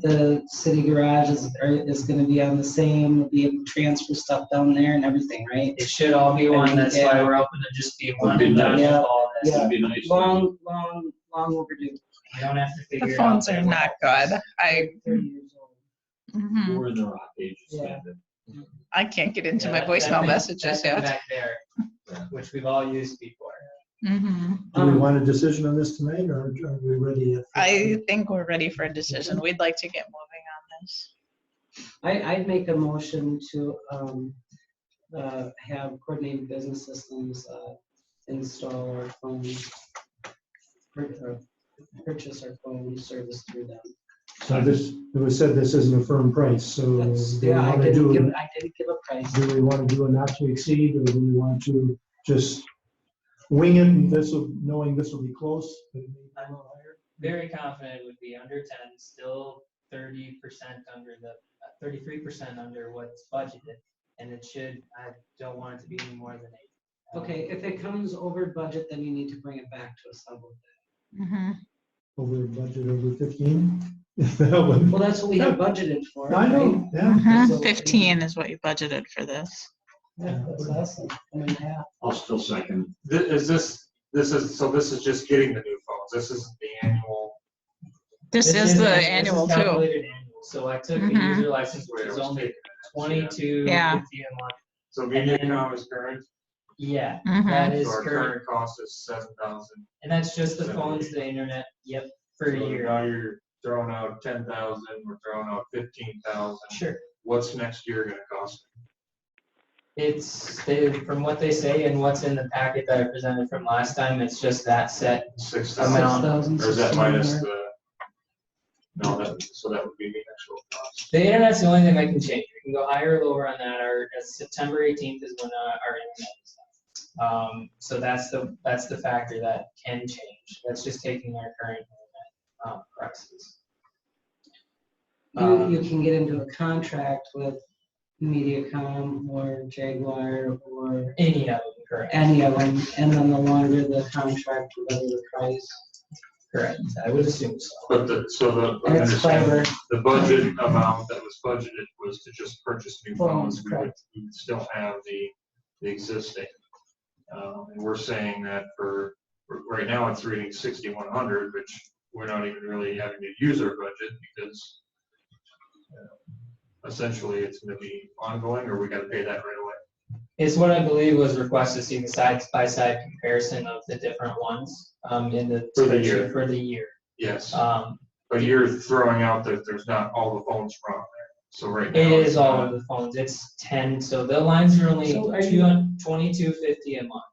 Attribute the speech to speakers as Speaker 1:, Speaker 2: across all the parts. Speaker 1: the city garage is, are- is gonna be on the same, we'll be able to transfer stuff down there and everything, right?
Speaker 2: It should all be one, that's why we're hoping to just be one and done with all this.
Speaker 1: Yeah.
Speaker 3: That'd be nice.
Speaker 1: Long, long, long overdue,
Speaker 2: We don't have to figure
Speaker 4: The
Speaker 2: it out.
Speaker 4: phones are not good. I,
Speaker 1: thirty
Speaker 5: Mm-hmm.
Speaker 1: years old.
Speaker 4: mhm.
Speaker 3: We're in the rock age
Speaker 1: Yeah.
Speaker 3: standard.
Speaker 4: I can't get into my
Speaker 2: Yeah, that- that
Speaker 4: voicemail
Speaker 2: thing-
Speaker 4: messages
Speaker 2: that thing
Speaker 4: yet.
Speaker 2: Back there,
Speaker 3: Yeah.
Speaker 2: which we've all used before.
Speaker 4: Mhm.
Speaker 5: Do
Speaker 1: Um,
Speaker 5: we want a decision on this tonight, or are we ready? at-
Speaker 4: I think we're ready for a decision. We'd like to get moving on this.
Speaker 1: I, I'd make a motion to, um, uh, have coordinated business systems, uh, install our phone, pur- or purchase our phone service through them.
Speaker 5: So this, it was said this isn't a firm price, so do
Speaker 1: That's,
Speaker 5: we
Speaker 1: yeah, I
Speaker 5: want to
Speaker 1: didn't give,
Speaker 5: do,
Speaker 1: I didn't give a price.
Speaker 5: do we want to do a not to exceed, or do we want to just wing it, and this will, knowing this will be close? but it may be a little higher?
Speaker 2: Very confident would be under ten, still thirty percent under the, uh, thirty-three percent under what's budgeted. And it should, I don't want it to be any more than eight. Um,
Speaker 1: Okay, if it comes over budget, then you need to bring it back to us. I will-
Speaker 4: Mhm.
Speaker 5: Over budget, over fifteen? If that would-
Speaker 1: Well, that's what we have budgeted for.
Speaker 5: I
Speaker 1: right?
Speaker 5: know, yeah.
Speaker 1: So-
Speaker 4: Mhm. Fifteen is what you budgeted for this.
Speaker 1: Yeah, that's awesome. I mean, yeah.
Speaker 3: I'll still second.
Speaker 6: Thi- Is this, this is, so this is just getting the new phones, this isn't the annual,
Speaker 4: This is the
Speaker 2: this is
Speaker 4: annual too.
Speaker 2: calculated annual. So I took the
Speaker 4: Mhm.
Speaker 2: user license, which
Speaker 6: Where it
Speaker 2: is
Speaker 6: was
Speaker 2: only
Speaker 6: taken.
Speaker 2: twenty-two
Speaker 4: Yeah.
Speaker 2: fifty a month.
Speaker 6: so MediaCom is current,
Speaker 2: Yeah,
Speaker 4: Mhm.
Speaker 2: that is
Speaker 6: so our
Speaker 2: current.
Speaker 6: current cost is seven thousand.
Speaker 2: And that's just the phones, the internet, yep, for a year.
Speaker 6: Now you're throwing out ten thousand, we're throwing out fifteen thousand,
Speaker 2: Sure.
Speaker 6: what's next year gonna cost?
Speaker 2: It's, they, from what they say and what's in the packet that I presented from last time, it's just that set.
Speaker 6: Six
Speaker 2: Amount.
Speaker 6: thousand, or is that
Speaker 1: 6,600.
Speaker 6: minus the? No, that, so that would be the actual cost.
Speaker 2: The internet's the only thing I can change. We can go higher or lower on that. Our, uh, September eighteenth is when uh, our internet is up. Um, so that's the, that's the factor that can change. That's just taking our current internet, um, prices.
Speaker 6: um,
Speaker 1: You, you can get into a contract with MediaCom or Jaguar or
Speaker 2: Any of them, correct,
Speaker 1: any of them, and then the longer the contract, the better the price.
Speaker 2: correct. I would assume so.
Speaker 6: But the, so the, I
Speaker 1: And it's
Speaker 6: understand
Speaker 1: fiber.
Speaker 6: The budget amount that was budgeted was to just purchase new
Speaker 1: Phones,
Speaker 6: phones. We would we would still have the, the existing. Um, And we're saying that for, for- right now it's reading sixty-one hundred, which we're not even really having to use our budget because uh, essentially it's gonna be ongoing or we gotta pay that right away.
Speaker 2: It's what I believe was requested, see the side by side comparison of the different ones, um, in the.
Speaker 6: For the year.
Speaker 2: For the year.
Speaker 6: Yes,
Speaker 2: Um,
Speaker 6: but you're throwing out that there's not all the phones from there. So right now.
Speaker 2: It is all
Speaker 6: not-
Speaker 2: of the phones. It's ten, so the lines are only
Speaker 1: So are you-
Speaker 2: twenty-two fifty a month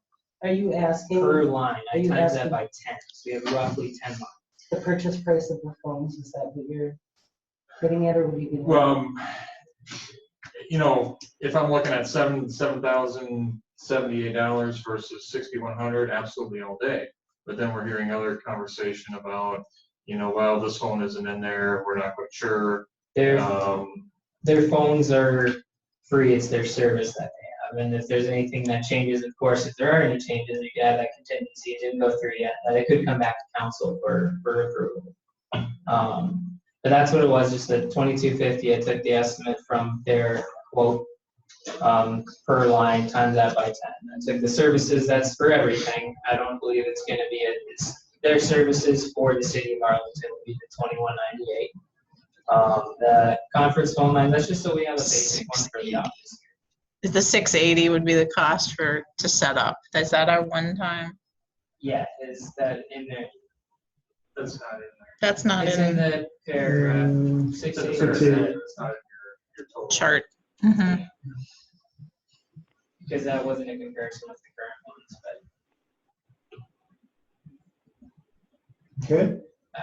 Speaker 1: Are you asking
Speaker 2: per line.
Speaker 1: Are
Speaker 2: I
Speaker 1: you
Speaker 2: times
Speaker 1: asking-
Speaker 2: that by ten, so we have roughly ten lines.
Speaker 1: the purchase price of the phones? Is that what you're getting at, or what are you getting? at?
Speaker 6: Well, um, you know, if I'm looking at seven, seven thousand seventy-eight dollars versus sixty-one hundred, absolutely all day. But then we're hearing other conversation about, you know, well, this phone isn't in there, we're not quite sure.
Speaker 2: Their,
Speaker 6: Um,
Speaker 2: their phones are free. It's their service that they have. Um, And if there's anything that changes, of course, if there are any changes, you got that contingency. It didn't go through yet, that it could come back to council for, for approval. Um, but that's what it was, just the twenty-two fifty. I took the estimate from their quote um, per line times that by ten. That's like the services, that's for everything. I don't believe it's gonna be, a- it's their services for the city of Arlington would be the twenty-one ninety-eight. Um, the conference phone line, that's just so we have a basic one for the office.
Speaker 4: The six eighty would be the cost for, to set up. Is that our one time?
Speaker 2: Yeah, is that in there?
Speaker 6: that's not in there.
Speaker 4: That's not
Speaker 2: It's in
Speaker 4: in
Speaker 2: the
Speaker 1: uh,
Speaker 2: paragraph
Speaker 5: Um,
Speaker 2: uh, six
Speaker 6: It's
Speaker 2: eighty
Speaker 6: not in
Speaker 2: percent,
Speaker 6: your- it's not in your- your total.
Speaker 4: chart.
Speaker 2: Mm-hmm.
Speaker 4: Mhm.
Speaker 2: because that wasn't a comparison with the current ones, but
Speaker 5: Okay,
Speaker 2: I,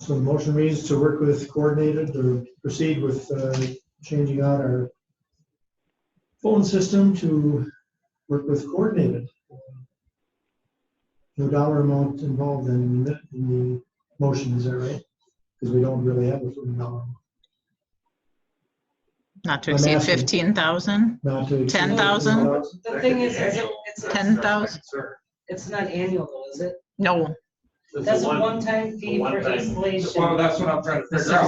Speaker 5: so the motion reads to work with coordinated or proceed with uh, changing out our phone system to work with coordinated. No dollar amount involved in the, in the motion, is that right? Because we don't really have a certain dollar, amount.
Speaker 4: Not to
Speaker 5: I'm
Speaker 4: exceed
Speaker 5: asking.
Speaker 4: fifteen thousand?
Speaker 5: not to. exceed-
Speaker 4: 10,000?
Speaker 1: The
Speaker 6: That
Speaker 1: thing
Speaker 6: could be
Speaker 1: is, is it-
Speaker 6: annual.
Speaker 1: it's-
Speaker 6: That's- that's my
Speaker 4: 10,000.
Speaker 6: concern.
Speaker 1: It's not annual, though, is it?
Speaker 4: No,
Speaker 1: That's a one-time fee
Speaker 3: the
Speaker 1: for
Speaker 3: one-time-
Speaker 1: installation.
Speaker 6: Well, that's what I'm trying to
Speaker 2: This
Speaker 6: figure out.